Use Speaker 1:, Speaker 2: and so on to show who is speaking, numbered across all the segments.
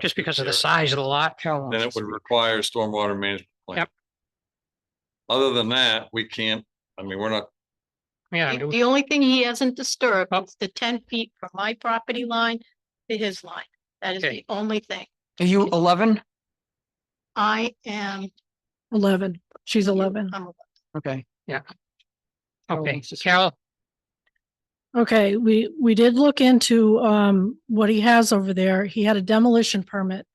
Speaker 1: just because of the
Speaker 2: Sure.
Speaker 1: size of the lot.
Speaker 2: Then it would require a stormwater management plan.
Speaker 1: Yep.
Speaker 2: Other than that, we can't, I mean, we're not,
Speaker 1: Yeah,
Speaker 3: The
Speaker 1: do-
Speaker 3: the only thing he hasn't disturbed
Speaker 1: Oh.
Speaker 3: is the ten feet from my property line to his line. That is
Speaker 1: Okay.
Speaker 3: the only thing.
Speaker 4: Are you eleven?
Speaker 3: I am.
Speaker 5: Eleven. She's eleven.
Speaker 3: I'm-
Speaker 4: Okay.
Speaker 1: okay,
Speaker 4: it's just-
Speaker 1: Carol,
Speaker 5: Okay, we, we did look into, um, what he has over there. He had a demolition permit.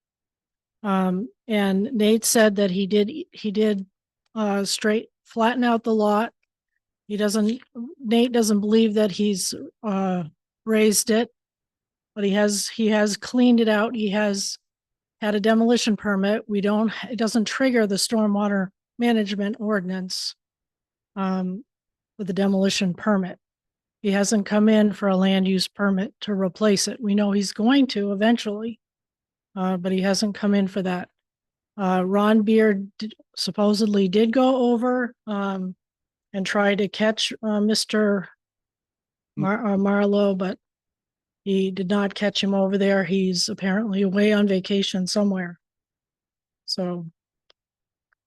Speaker 5: Um, and Nate said that he did, he did, uh, straight, flatten out the lot. He doesn't, Nate doesn't believe that he's, uh, raised it. But he has, he has cleaned it out. He has had a demolition permit. We don't, it doesn't trigger the stormwater management ordinance. Um, with the demolition permit. He hasn't come in for a land use permit to replace it. We know he's going to eventually. Uh, but he hasn't come in for that. Uh, Ron Beard did- supposedly did go over, um, and try to catch, uh, Mr.
Speaker 2: Hmm.
Speaker 5: Mar- uh, Marlowe, but he did not catch him over there. He's apparently away on vacation somewhere. So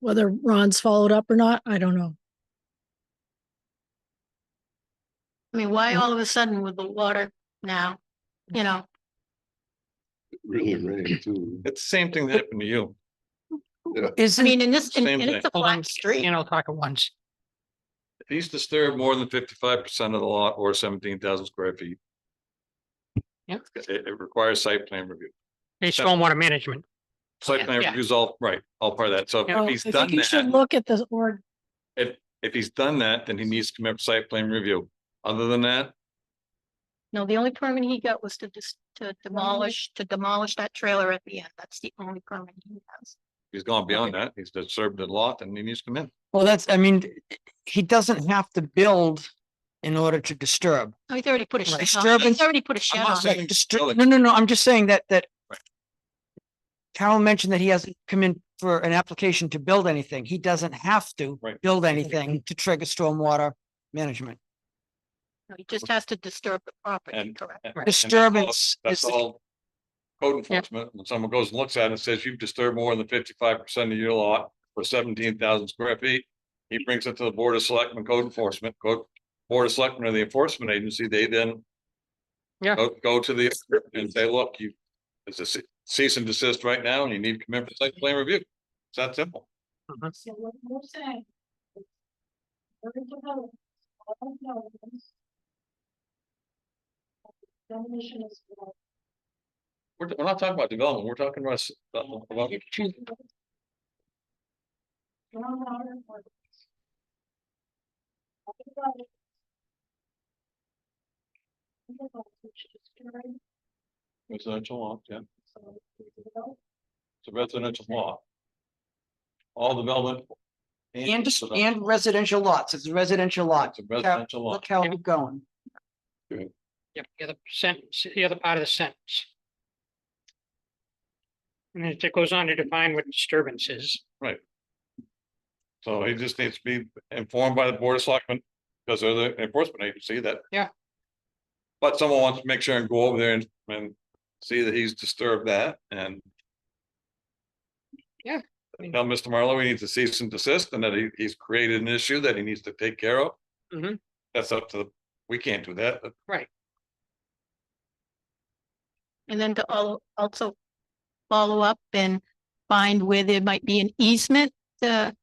Speaker 5: whether Ron's followed up or not, I don't know.
Speaker 3: I mean, why all of a sudden with the water now? You know,
Speaker 6: Really rain too.
Speaker 2: it's the same thing that happened to you.
Speaker 3: I
Speaker 4: Isn't,
Speaker 3: mean, in this, and
Speaker 2: Same
Speaker 3: and it's
Speaker 2: thing.
Speaker 3: a
Speaker 1: hold on,
Speaker 3: flat street.
Speaker 1: you know, talk at once.
Speaker 2: If He's disturbed more than fifty-five percent of the lot or seventeen thousand square feet.
Speaker 1: Yep.
Speaker 2: It, it requires site plan review.
Speaker 1: Hey, stormwater management.
Speaker 2: Site plan
Speaker 1: Yeah.
Speaker 2: reviews all, right, all part of that. So
Speaker 5: Well,
Speaker 2: if he's
Speaker 5: I think
Speaker 2: done
Speaker 5: You should
Speaker 2: that,
Speaker 5: look at the, or
Speaker 2: if he's done that, then he needs to commit site plan review. Other than that,
Speaker 3: No, the only permit he got was to just, to demolish, to demolish that trailer at the end. That's the only permit he has.
Speaker 2: he's gone beyond that. He's disturbed the lot and he needs to come in.
Speaker 4: well, that's, I mean, he doesn't have to build in order to disturb.
Speaker 3: Oh, he's already put a shed on.
Speaker 4: Disturbance-
Speaker 3: He's already put a shed
Speaker 4: I'm not
Speaker 3: on.
Speaker 4: saying disturb,
Speaker 2: building.
Speaker 4: no, no, no, I'm just saying that, that Carol mentioned that he hasn't come in for an application to build anything. He doesn't have to
Speaker 2: Right.
Speaker 4: build anything to trigger stormwater management.
Speaker 3: No, He just has to disturb the property,
Speaker 2: And-
Speaker 3: correct?
Speaker 2: And- and that's all-
Speaker 4: Disturbance is,
Speaker 2: That's all. Code enforcement, when someone goes and looks at it and says you've disturbed more than fifty-five percent of your lot for seventeen thousand square feet. He brings it to the Board of Selectmen Code Enforcement, Code, Board of Selectmen or the Enforcement Agency, they then.
Speaker 1: Yeah.
Speaker 2: Go, go to the, and say, look, you, it's a ce- cease and desist right now and you need to come in for site plan review. It's that simple.
Speaker 3: So what we're saying. is every development, all of those, Demolition is.
Speaker 2: We're, we're not talking about development, we're talking about. s- about-
Speaker 3: Stormwater or-
Speaker 2: Residential lot, yeah. It's a residential lot. All development.
Speaker 4: and, dis-
Speaker 2: development.
Speaker 4: and residential lots. It's a residential lot.
Speaker 2: It's a residential lot.
Speaker 4: Look how we're going.
Speaker 1: Yep, the other sentence, the other part of the sentence. And it goes on to define what disturbance is.
Speaker 2: So he just needs to be informed by the board of selectmen, because they're the enforcement agency that.
Speaker 1: Yeah.
Speaker 2: But someone wants to make sure and go over there and, and see that he's disturbed that and.
Speaker 1: Yeah.
Speaker 2: Tell Mr. Marlowe he needs to cease and desist and that he, he's created an issue that he needs to take care of.
Speaker 1: Mhm.
Speaker 2: That's up to, the. we can't do that.
Speaker 3: And then to al- also follow up and find where there might be an easement to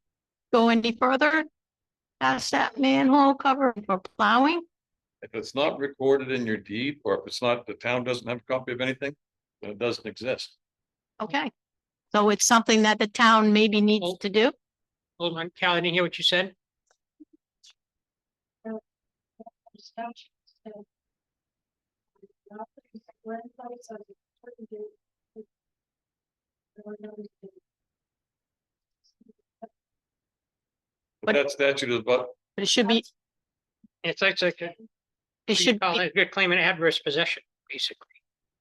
Speaker 3: go any further. Past that manhole cover for plowing,
Speaker 2: If it's not recorded in your deed, or if it's not, the town doesn't have a copy of anything, then it doesn't exist.
Speaker 3: okay. So it's something that the town maybe needs
Speaker 1: Well-
Speaker 3: to do.
Speaker 1: Hold on, Cal, I didn't hear what you said.
Speaker 2: But
Speaker 3: But-
Speaker 2: that statute is about
Speaker 3: But it should be,
Speaker 1: It's like, it's like, a-
Speaker 3: it
Speaker 1: you
Speaker 3: should
Speaker 1: call
Speaker 3: be,
Speaker 1: it- you're claiming adverse possession, basically.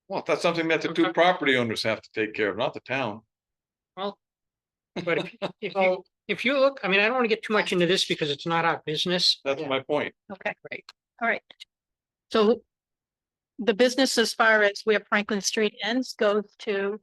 Speaker 2: Well, that's something that the two
Speaker 1: Okay.
Speaker 2: property owners have to take care of, not the town.
Speaker 1: Well. But if, if you, if you look, I mean, I don't want to get too much into this because it's not our business.
Speaker 2: That's my point.
Speaker 3: okay,
Speaker 1: Right.
Speaker 3: all right. So the business as far as where Franklin Street ends goes to